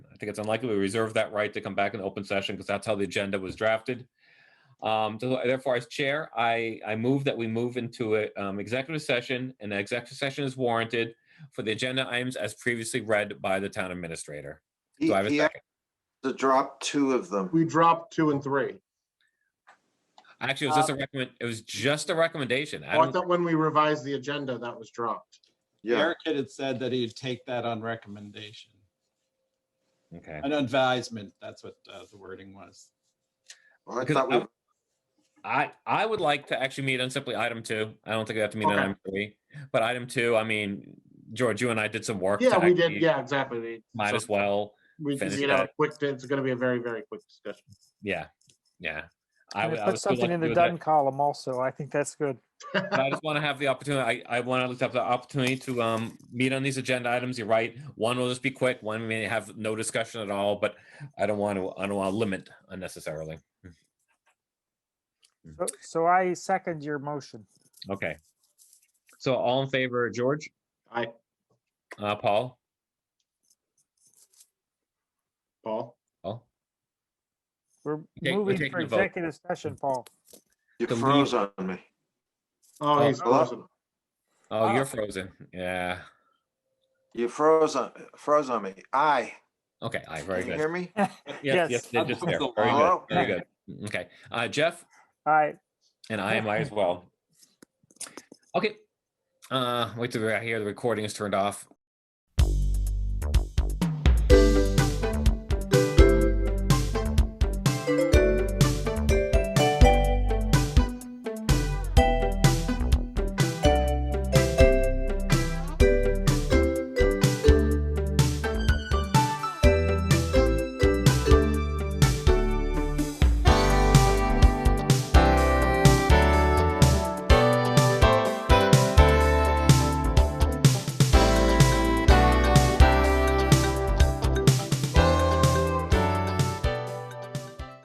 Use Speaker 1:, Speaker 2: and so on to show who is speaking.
Speaker 1: think it's unlikely we reserve that right to come back in open session because that's how the agenda was drafted. Um, so Therefore, as chair, I, I move that we move into a, um, executive session and the executive session is warranted for the agenda items as previously read by the town administrator.
Speaker 2: He,
Speaker 1: Do I have a
Speaker 2: he had
Speaker 1: second?
Speaker 2: to drop two of them.
Speaker 3: We dropped two and three.
Speaker 1: Actually, it was just
Speaker 3: uh,
Speaker 1: a recommend, it was just a recommendation. I
Speaker 3: Oh, I
Speaker 1: don't,
Speaker 3: thought when we revised the agenda, that was dropped.
Speaker 2: Yeah,
Speaker 4: Eric had said that he'd take that on recommendation,
Speaker 1: okay.
Speaker 4: an advisement, that's what uh, the wording was.
Speaker 2: well, I
Speaker 1: because
Speaker 2: thought
Speaker 1: I-
Speaker 2: we,
Speaker 1: I, I would like to actually meet on simply item two. I don't think we have to meet on
Speaker 3: Okay.
Speaker 1: item three, but item two, I mean, George, you and I did some work. to
Speaker 3: Yeah,
Speaker 1: actually-
Speaker 3: we did. Yeah, exactly. We-
Speaker 1: Might
Speaker 3: so
Speaker 1: as well.
Speaker 3: We,
Speaker 1: finish
Speaker 3: you know,
Speaker 1: that.
Speaker 3: quick, it's gonna be a very, very quick discussion.
Speaker 1: Yeah, yeah. I
Speaker 5: And
Speaker 1: would.
Speaker 5: if
Speaker 1: I would
Speaker 5: that's
Speaker 1: still like
Speaker 5: something
Speaker 1: to
Speaker 5: in the
Speaker 1: do that,
Speaker 5: done column also, I think that's good.
Speaker 1: but I just want to have the opportunity. I, I want to look up the opportunity to um meet on these agenda items. You're right. One will just be quick. One may have no discussion at all. But I don't want to. I don't want to limit unnecessarily.
Speaker 5: So- So I second your motion.
Speaker 1: Okay. So all in favor, George,
Speaker 3: I,
Speaker 1: uh, Paul,
Speaker 3: Paul,
Speaker 1: Paul.
Speaker 5: We're
Speaker 1: we're
Speaker 5: moving
Speaker 1: taking
Speaker 5: for
Speaker 1: a vote.
Speaker 5: executive session, Paul.
Speaker 2: you
Speaker 1: the lead-
Speaker 2: froze on me.
Speaker 3: oh, he's
Speaker 2: Hello?
Speaker 3: frozen.
Speaker 1: Oh, you're
Speaker 5: Ah.
Speaker 1: frozen. Yeah.
Speaker 2: You froze on, froze on me. Aye.
Speaker 1: Okay. I very
Speaker 2: Can you
Speaker 1: good.
Speaker 2: hear me?
Speaker 1: Yes. Yes.
Speaker 5: Yes.
Speaker 1: they're just there.
Speaker 4: Hello?
Speaker 1: Very good.
Speaker 2: Hello?
Speaker 1: Very good. Okay. Uh, Jeff.
Speaker 5: All right.
Speaker 1: And I am I as well. Okay. Uh, wait till we're out here. The recording is turned off.